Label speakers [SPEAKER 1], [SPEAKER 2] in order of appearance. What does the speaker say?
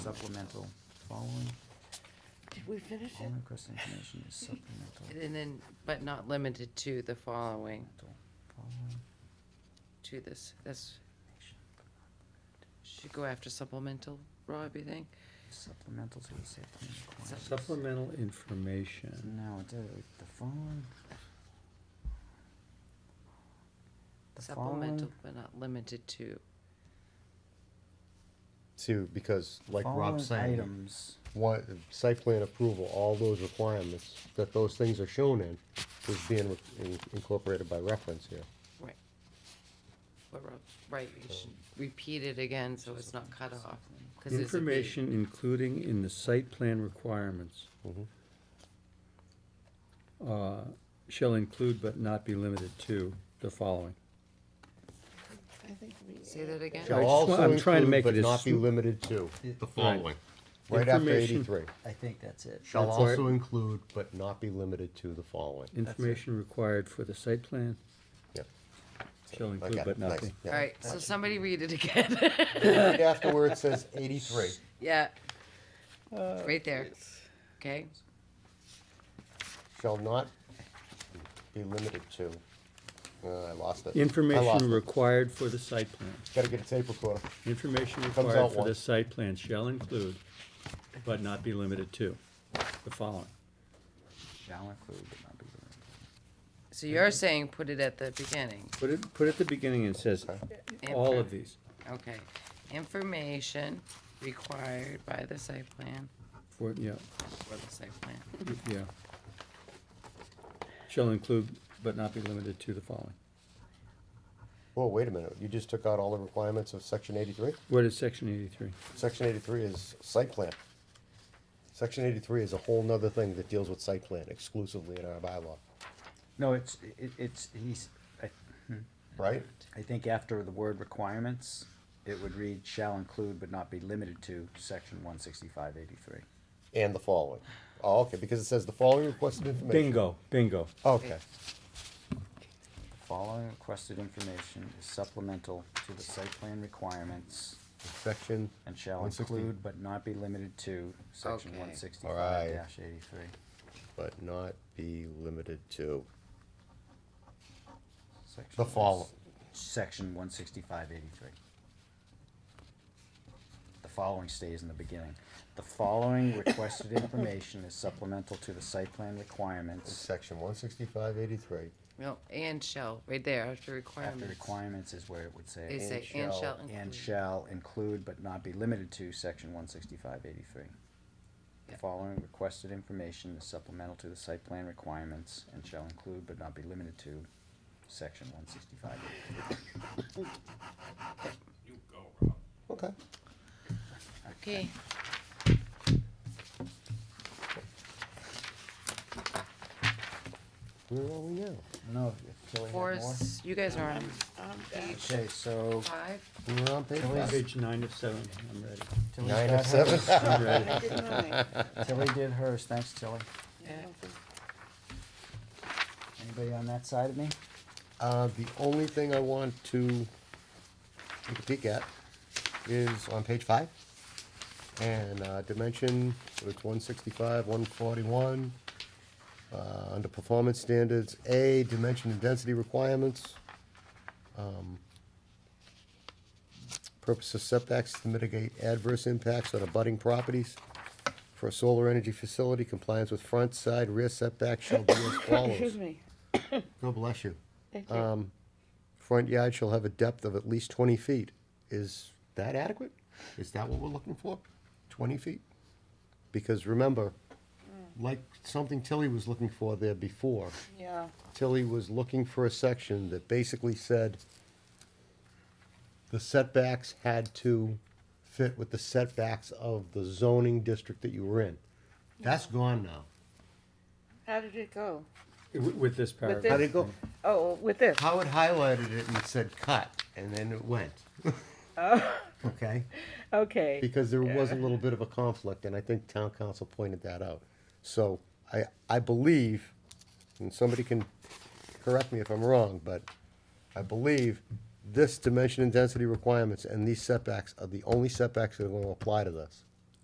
[SPEAKER 1] Supplemental, following,
[SPEAKER 2] Did we finish
[SPEAKER 1] all requested information is supplemental.
[SPEAKER 2] it? And then, but not limited to the following,
[SPEAKER 1] supplemental, Following,
[SPEAKER 2] to this, that's, should go after supplemental, Rob, you think?
[SPEAKER 1] supplemental to the safety requirements.
[SPEAKER 3] Supplemental
[SPEAKER 1] So
[SPEAKER 3] information.
[SPEAKER 1] now it's, uh, the following. The
[SPEAKER 2] Supplemental,
[SPEAKER 1] following,
[SPEAKER 2] but not limited to,
[SPEAKER 4] See, because like Rob's
[SPEAKER 1] following
[SPEAKER 4] saying,
[SPEAKER 1] items,
[SPEAKER 4] what, site plan approval, all those requirements that those things are shown in is being re- in- incorporated by reference here.
[SPEAKER 2] right. What Rob, right, you should repeat it again, so it's not cut off, because it's a B.
[SPEAKER 3] Information including in the site plan requirements
[SPEAKER 4] Mm-hmm.
[SPEAKER 3] uh, shall include but not be limited to the following.
[SPEAKER 2] Say that again?
[SPEAKER 4] Shall
[SPEAKER 3] just
[SPEAKER 4] also
[SPEAKER 3] want- I'm trying to
[SPEAKER 4] include
[SPEAKER 3] make
[SPEAKER 4] but
[SPEAKER 3] it as
[SPEAKER 4] not be
[SPEAKER 3] sm-
[SPEAKER 4] limited to,
[SPEAKER 5] The following.
[SPEAKER 4] right after
[SPEAKER 3] Information-
[SPEAKER 4] eighty-three.
[SPEAKER 1] I think that's it.
[SPEAKER 4] Shall
[SPEAKER 3] That's all right.
[SPEAKER 4] also include but not be limited to the following.
[SPEAKER 3] Information required for the site plan
[SPEAKER 4] Yep.
[SPEAKER 3] shall include
[SPEAKER 4] Okay,
[SPEAKER 3] but not
[SPEAKER 4] nice,
[SPEAKER 3] be.
[SPEAKER 4] yeah.
[SPEAKER 2] All right, so somebody read it again,
[SPEAKER 4] Right After where it says eighty-three,
[SPEAKER 2] yeah.
[SPEAKER 1] Uh,
[SPEAKER 2] Right there, okay?
[SPEAKER 4] shall not be limited to, uh, I lost it. I lost
[SPEAKER 3] Information
[SPEAKER 4] it.
[SPEAKER 3] required for the site plan.
[SPEAKER 4] Gotta get a tape recorder.
[SPEAKER 3] Information
[SPEAKER 4] Comes
[SPEAKER 3] required
[SPEAKER 4] out
[SPEAKER 3] for the
[SPEAKER 4] once.
[SPEAKER 3] site plan shall include but not be limited to the following.
[SPEAKER 1] Shall include, but not be limited.
[SPEAKER 2] So you're saying put it at the beginning,
[SPEAKER 3] Put it, put it at the beginning and it says all of these.
[SPEAKER 2] okay? Information required by the site plan,
[SPEAKER 3] For, yeah,
[SPEAKER 2] for the site plan.
[SPEAKER 3] yeah. Shall include but not be limited to the following.
[SPEAKER 4] Whoa, wait a minute, you just took out all the requirements of section eighty-three?
[SPEAKER 3] What is section eighty-three?
[SPEAKER 4] Section eighty-three is site plan. Section eighty-three is a whole nother thing that deals with site plan exclusively in our bylaw,
[SPEAKER 1] No, it's, it, it's, he's, I,
[SPEAKER 4] right?
[SPEAKER 1] I think after the word requirements, it would read shall include but not be limited to section one sixty-five eighty-three.
[SPEAKER 4] And the following. Oh, okay, because it says the following requested information.
[SPEAKER 3] Bingo, bingo.
[SPEAKER 4] Okay,
[SPEAKER 1] Following requested information is supplemental to the site plan requirements
[SPEAKER 4] section,
[SPEAKER 1] and shall
[SPEAKER 4] 160.
[SPEAKER 1] include but not be limited to section
[SPEAKER 2] Okay.
[SPEAKER 1] one sixty-five eighty-three.
[SPEAKER 4] but not be limited to the following.
[SPEAKER 1] Section one sixty-five eighty-three. The following stays in the beginning. The following requested information is supplemental to the site plan requirements.
[SPEAKER 4] Section one sixty-five eighty-three.
[SPEAKER 2] Well, and shall, right there, after
[SPEAKER 1] After
[SPEAKER 2] requirements.
[SPEAKER 1] requirements is where it would say.
[SPEAKER 2] They
[SPEAKER 4] and
[SPEAKER 2] say, and
[SPEAKER 4] shall-
[SPEAKER 2] shall
[SPEAKER 1] And
[SPEAKER 2] include.
[SPEAKER 1] shall include but not be limited to section one sixty-five eighty-three. The
[SPEAKER 2] Yeah.
[SPEAKER 1] following requested information is supplemental to the site plan requirements and shall include but not be limited to section one sixty-five eighty-three.
[SPEAKER 4] Okay.
[SPEAKER 2] Okay,
[SPEAKER 4] Where are we now?
[SPEAKER 1] No, if Tilly had more.
[SPEAKER 2] four, s- you guys are on page
[SPEAKER 1] Okay, so
[SPEAKER 2] five?
[SPEAKER 4] We were on page five.
[SPEAKER 3] Page nine of seven, I'm ready.
[SPEAKER 1] Tilly's
[SPEAKER 4] Nine
[SPEAKER 1] got
[SPEAKER 4] of
[SPEAKER 1] hers.
[SPEAKER 4] seven.
[SPEAKER 3] I'm ready.
[SPEAKER 1] Tilly did hers, thanks Tilly.
[SPEAKER 2] Yeah.
[SPEAKER 1] Anybody on that side of me?
[SPEAKER 4] Uh, the only thing I want to take a peek at is on page five. And, uh, dimension, it's one sixty-five, one forty-one. Uh, under performance standards, A, dimension and density requirements. Um, Purpose of setbacks to mitigate adverse impacts on abutting properties. For a solar energy facility, compliance with front, side, rear setback shall be as follows.
[SPEAKER 6] Excuse me.
[SPEAKER 4] God bless you.
[SPEAKER 6] Thank you.
[SPEAKER 4] Um, front yard shall have a depth of at least twenty feet. Is that adequate? Is that what we're looking for? Twenty feet? Because remember, like something Tilly was looking for there before,
[SPEAKER 6] yeah.
[SPEAKER 4] Tilly was looking for a section that basically said the setbacks had to fit with the setbacks of the zoning district that you were in. That's gone now.
[SPEAKER 6] How did it go?
[SPEAKER 3] With with this
[SPEAKER 4] How
[SPEAKER 3] paragraph.
[SPEAKER 4] did it go?
[SPEAKER 6] Oh, with this.
[SPEAKER 4] Howard highlighted it and it said cut, and then it went. Okay,
[SPEAKER 6] Oh, Okay.
[SPEAKER 4] because there was a little bit of a conflict, and I think town council pointed that out. So I, I believe, and somebody can correct me if I'm wrong, but I believe this dimension and density requirements and these setbacks are the only setbacks that are gonna apply to this.